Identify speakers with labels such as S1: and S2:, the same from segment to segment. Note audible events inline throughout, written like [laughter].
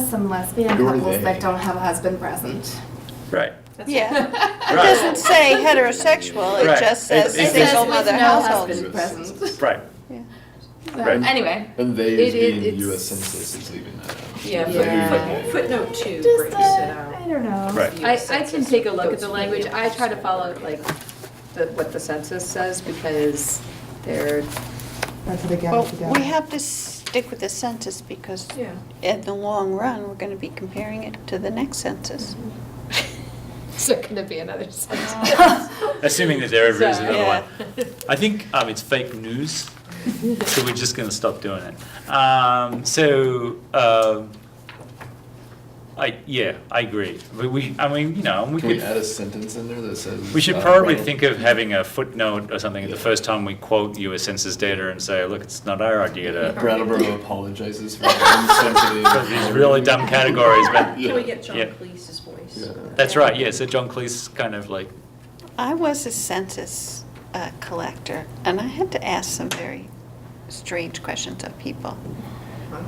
S1: some lesbian
S2: Who are
S1: couples
S2: they?
S1: that don't have a husband present.
S3: Right.
S4: [laughs]
S1: [laughs]
S5: Yeah, it
S3: Right.
S5: doesn't say heterosexual,
S3: Right.
S5: it just says
S3: It- it
S5: single
S3: says
S5: mother
S1: with
S5: household.
S1: No husband present.
S3: Right.
S1: So,
S3: Right.
S1: Anyway,
S2: And they
S6: It-
S2: is
S6: it-
S2: being
S6: it's-
S2: U.S. Census is leaving that out.
S6: Yeah,
S1: Yeah.
S6: foot- foot- footnote two
S1: just
S6: breaks
S1: uh,
S6: it out.
S1: I don't know.
S3: Right.
S6: The
S3: don't-
S6: US
S4: I, I can
S6: Census
S4: take a look at
S6: goes
S4: the
S6: through
S4: language. I try to
S6: census.
S4: follow like the, what the census says because they're,
S7: That's what they gather
S5: Well,
S7: together.
S5: we have to stick with the census because
S6: Yeah.
S5: in the long run, we're going to be comparing it to the next census.
S4: it's gonna be
S6: [laughs]
S4: another census.
S6: Uh,
S3: Assuming that there ever is
S4: So,
S3: another
S5: yeah.
S3: one. I think um, it's fake news, so we're just going to stop doing it. Um, so, um, I yeah, I agree. We, we I mean, you know, we
S2: Can
S3: could.
S2: we add a sentence in there that says?
S3: We should
S2: uh,
S3: probably
S2: Ronald-
S3: think of having a footnote or something the
S2: Yeah.
S3: first time we quote US Census data and say, look, it's not our idea to,
S2: Brattleboro apologizes
S3: [laughs]
S2: for insensitive.
S3: these really dumb categories, but,
S2: Yeah.
S6: Can we get John
S3: Yeah.
S6: Cleese's voice?
S2: Yeah.
S3: that's right, yeah, so John Cleese kind of like,
S1: Mm-hmm.
S5: I was a census uh, collector, and I had to ask some very strange questions of people.
S6: Wow.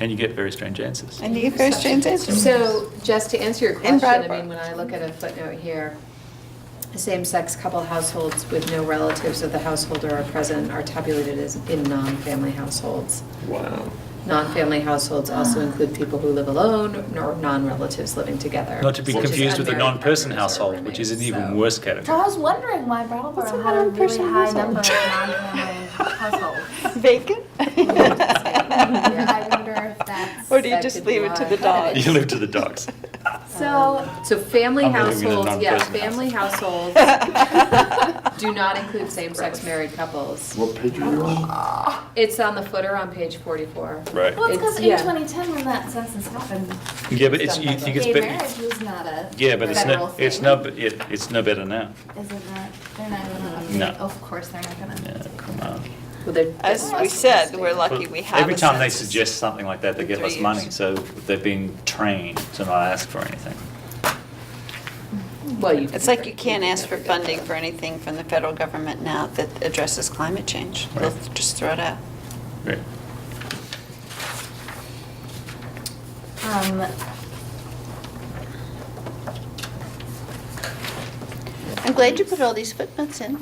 S3: and you get very strange answers.
S5: And you get very strange answers.
S4: So just to answer your
S5: In
S4: question, I
S5: Brattleboro.
S4: mean, when I look at a footnote here, same-sex couple households with no relatives of the householder are present are tabulated as in non-family households.
S2: Wow.
S4: Non-family households also
S6: Ah.
S4: include people who live alone nor non-relatives living together.
S3: Not to be
S4: such as
S3: confused with the
S4: unmarried
S3: non-person
S4: partners or
S3: household, which is an
S4: roommates,
S3: even
S4: so-
S3: worse
S1: So I
S3: category.
S1: was wondering why Brattleboro
S7: What's
S1: had a
S7: another
S1: really
S7: person
S1: high
S7: household?
S1: number of
S5: [laughs]
S1: non-family households. [laughs]
S5: Vacant?
S1: I wonder if that's.
S5: Or do you
S4: That
S5: just
S4: could
S5: leave it to the
S4: be why.
S5: dogs?
S3: You live to the dogs.
S5: [laughs]
S1: So,
S4: So family
S3: I'm living in a
S4: households, yeah,
S3: non-prison
S4: family households
S5: [laughs]
S4: do not include same-sex married couples.
S2: What page are you on?
S4: It's on the footer on page 44.
S3: Right.
S1: well, it's because
S4: It's-
S1: in
S4: yeah.
S1: 2010 when that census happened,
S3: Yeah, but it's, you think it's
S1: gay
S3: better,
S1: marriage was not a
S3: yeah, but it's
S1: federal
S3: no, it's
S1: thing.
S3: no, it, it's no better now.
S1: Is it not? They're not gonna.
S3: No.
S1: Of course, they're not gonna.
S3: Yeah, come on.
S4: Well, they're-
S5: As we said, we're
S3: Well,
S5: lucky we have a
S3: Every time they
S5: census.
S3: suggest something like that, they
S5: In
S3: get
S5: three
S3: less money,
S5: years.
S3: so they've been trained to not ask for anything.
S4: Well, you.
S5: It's like you can't ask for funding
S4: [laughs]
S5: for anything from the federal government now that addresses climate change. They'll
S3: Right.
S5: just throw it out.
S3: Right.
S1: Um,
S5: I'm glad you put all these footnotes in.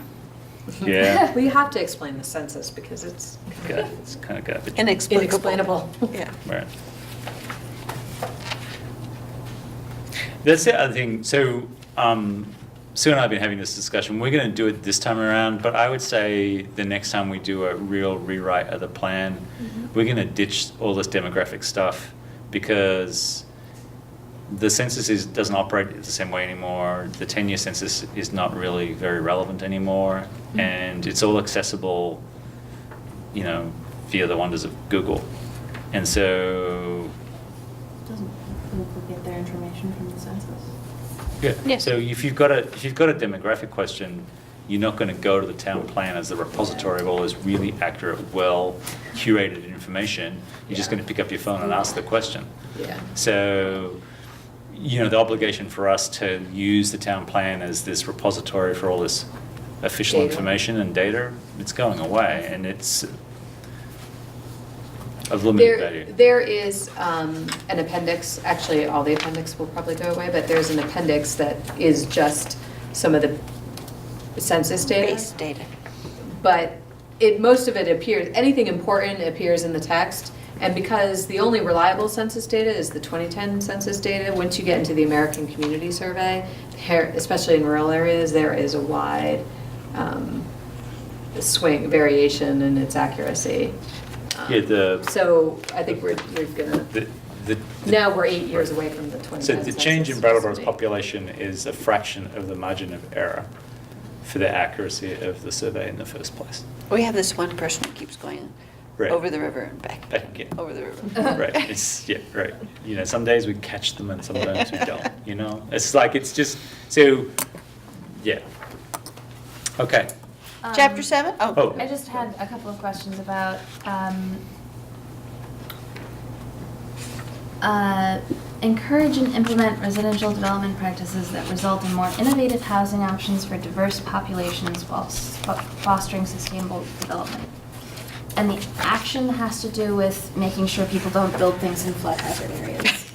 S3: Yeah.
S4: We have to explain the census because it's
S3: Okay, It's kind of garbage.
S5: Inexplicable.
S4: inexplainable.
S5: Yeah.
S3: Right. That's the other thing. So, um, Sue and I have been having this discussion. We're going to do it this time around, but I would say the next time we do a real rewrite of the plan,
S5: Mm-hmm.
S3: we're going to ditch all this demographic stuff because the census is, doesn't operate the same way anymore. The 10 year census is not really very relevant anymore, and it's all accessible you know, via the wonders of Google. And so,
S7: Doesn't Google get their information from the census?
S3: yeah.
S5: Yes.
S3: So if you've got a if you've got a demographic question, you're not going to go to the town plan as the repository of all this really accurate, well curated information. You're just going to pick up your phone and ask the question.
S4: Yeah.
S3: So, you know, the obligation for us to use the town plan as this repository for all this official
S4: Data.
S3: information and data, it's going away, and it's of limited
S4: There,
S3: value.
S4: there is um, an appendix, actually, all the appendix will probably go away, but there's an appendix that is just some of the census data.
S5: Base data.
S4: but it, most of it appears, anything important appears in the text. And because the only reliable census data is the 2010 census data, once you get into the American Community Survey, here, especially in rural areas, there is a wide um, swing, variation in its accuracy. Um,
S3: Yeah, the-
S4: So I think we're, we're gonna,
S3: The- the-
S4: now we're eight years away from the 2010
S3: So the change in
S4: census,
S3: Brattleboro's
S4: supposed to be.
S3: population is a fraction of the margin of error for the accuracy of the survey in the first place.
S5: We have this one person who keeps going
S3: Right.
S5: over the river and back.
S3: Back again.
S5: Over the [laughs] river.
S3: Right, it's, yeah, right. You know, some days we catch them and sometimes we don't, you know? It's like, it's just, so, yeah. Okay,
S1: um,
S5: Chapter seven?
S3: Oh.
S1: I just had a couple of questions about, um, uh, encourage and implement residential development practices that result in more innovative housing options for diverse populations while s- fo- fostering sustainable development. I and the action has to do with making sure people don't build things in flood hazard areas.